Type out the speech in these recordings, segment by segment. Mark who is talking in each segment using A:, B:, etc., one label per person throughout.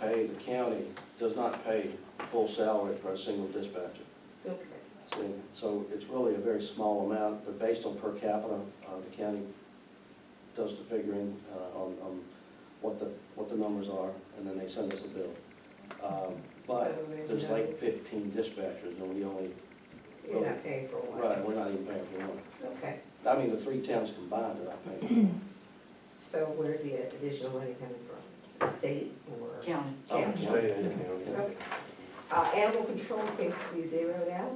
A: pay, the county does not pay the full salary for a single dispatcher.
B: Okay.
A: So- So it's really a very small amount, but based on per capita, uh, the county does the figuring uh, on, on what the, what the numbers are, and then they send us a bill. Um, But
B: So there's
A: there's
B: no-
A: like fifteen dispatchers, and we only,
B: You're not paying for one.
A: right, we're not even paying for one.
B: Okay,
A: I mean, the three towns combined are not paying.
B: so where's the additional money coming from? The State or?
C: County.
B: Yeah.
D: State and county.
B: Okay. Uh, animal control seems to be zeroed out.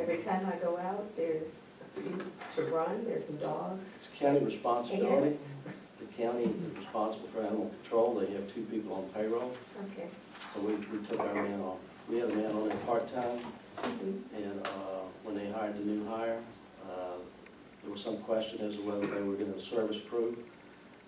B: Every time I go out, there's a few to run, there's some dogs.
A: It's county responsibility.
B: And-
A: The county is responsible for animal control, they have two people on payroll,
B: Okay.
A: so we, we took our man off. We had a man on there part-time,
B: Mhm.
A: and, uh, when they hired the new hire, uh, there was some question as to whether they were gonna service crew.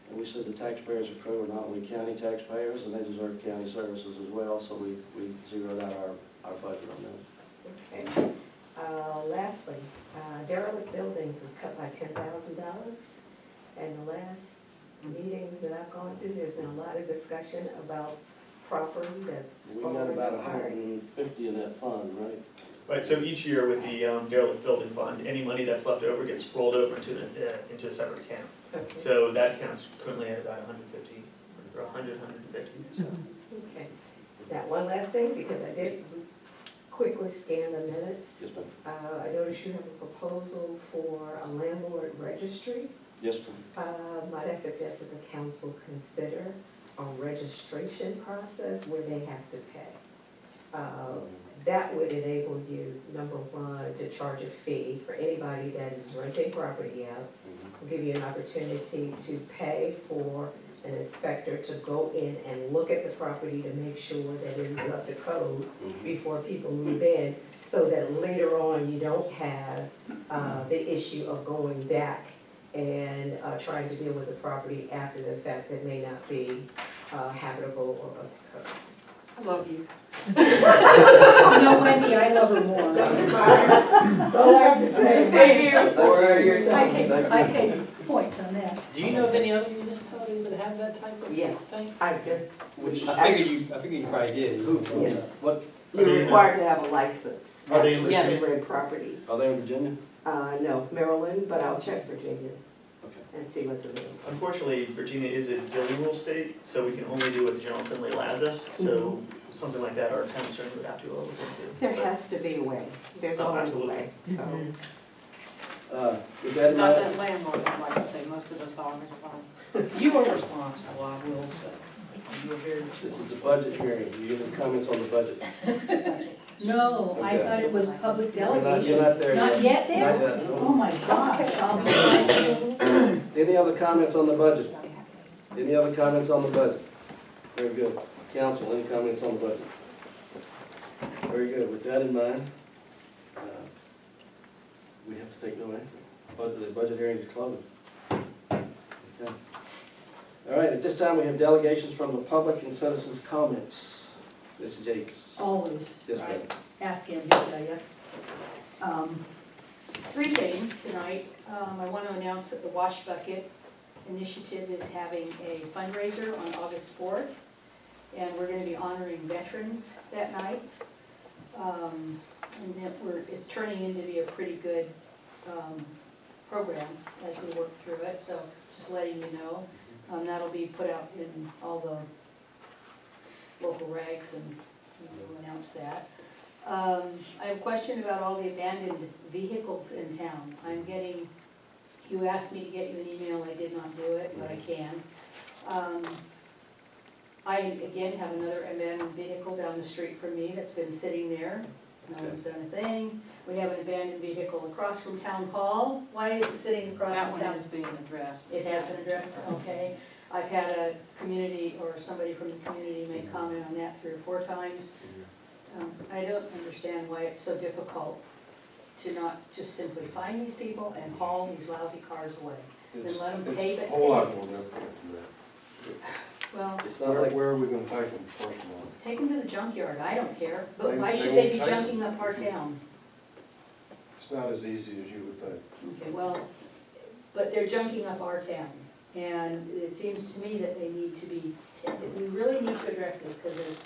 A: And we said the taxpayers of crew are not only county taxpayers, and they deserve county services as well, so we, we zeroed out our, our budget on that.
B: Okay. Uh, lastly, uh, derelict buildings was cut by ten thousand dollars. And the last meetings that I've gone to, there's been a lot of discussion about property that's
A: We got
B: falling
A: about a hundred
B: apart.
A: and fifty in that fund, right?
E: Right, so each year with the um, derelict building fund, any money that's left over gets rolled over into the, uh, into a separate account.
B: Okay.
E: So that account's currently at about hundred fifty, or a hundred, hundred and fifty, so.
B: Okay. Now, one last thing, because I did quickly scan the minutes.
A: Yes, ma'am.
B: Uh, I noticed you have a proposal for a landlord registry.
A: Yes, ma'am.
B: Uh, Might I suggest that the council consider a registration process where they have to pay? Uh, That would enable you, number one, to charge a fee for anybody that is renting property out. It'll Give you an opportunity to pay for an inspector to go in and look at the property to make sure that it is up to code
A: Mhm.
B: before people move in, so that later on you don't have uh, the issue of going back and uh, trying to deal with the property after the fact that may not be uh, habitable or up to code.
C: I love you.
F: No, Wendy, I love her more.
B: That's fine. That's all I have to say.
F: Just say here
A: for your-
F: I
A: Thank
F: take,
A: you.
F: I take points on that.
G: Do you know of any other municipalities that have that type of thing?
B: Yes, I just,
G: Which
A: Mm-hmm.
G: I figured you, I figured you probably did.
B: yes,
A: What, uh,
E: Are
B: you're
E: they-
B: required to have a license
E: Are they-
B: actually to rent property.
A: are they in Virginia?
B: Uh, No, Maryland, but I'll check Virginia
A: Okay.
B: and see what's available.
E: Unfortunately, Virginia is a deliveral state, so we can only do what the general assembly allows us, so something like that, our town attorney would have to look into.
B: Mm-hmm. There has to be a way. There's
E: Oh,
B: always a
E: absolutely.
B: way, so.
A: Uh, With that in
C: Not
A: mind,
C: that landlord, I'd like to say, most of us are responsible. You are responsible, I will say. You are very
A: this is the
C: responsible.
A: budget hearing, you have any comments on the budget?
F: No, I
A: Okay.
F: thought it was public
A: You're not-
F: delegation.
A: You're not there
F: Not
A: yet.
F: yet
A: Not
F: there?
A: yet, no.
F: Oh my gosh, I'll be glad.
A: Any other comments on the budget? Any other comments on the budget? Very good. Council, any comments on the budget? Very good, with that in mind, uh, we have to take no action. But the budget hearing is closed. Okay. All right, at this time, we have delegations from the public and citizens' comments. Mrs. Jakes?
F: Always.
A: Yes, ma'am.
F: ask him, he'll tell you. Um, Three things tonight. Um, I want to announce that the Wash Bucket Initiative is having a fundraiser on August fourth, and we're going to be honoring veterans that night. Um, And that we're, it's turning into be a pretty good um, program as we work through it, so just letting you know. Um, That'll be put out in all the local rags, and we'll announce that. Um, I have a question about all the abandoned vehicles in town. I'm getting, you asked me to get you an email, I did not do it, but I can. Um, I again have another abandoned vehicle down the street from me that's been sitting there. No one's done a thing. We have an abandoned vehicle across from town hall. Why is it sitting across
C: That
F: from
C: one
F: town?
C: is being addressed.
F: It has been addressed, okay. I've had a community or somebody from the community make comment on that three or four times. Um, I don't understand why it's so difficult to not just simply find these people and haul these lousy cars away. Then let them pay
D: It's
F: it.
D: a whole lot more difficult than
F: Well,
A: It's
D: that.
A: not
D: Where,
A: like,
D: where are we gonna take them first of all?
F: take them to the junkyard, I don't care,
D: They-
F: but why
D: they
F: should they
D: won't
F: be
D: take
F: junking
D: them.
F: up our town?
D: It's not as easy as you would think.
F: Okay, well, but they're junking up our town. And it seems to me that they need to be, that we really need to address this because there's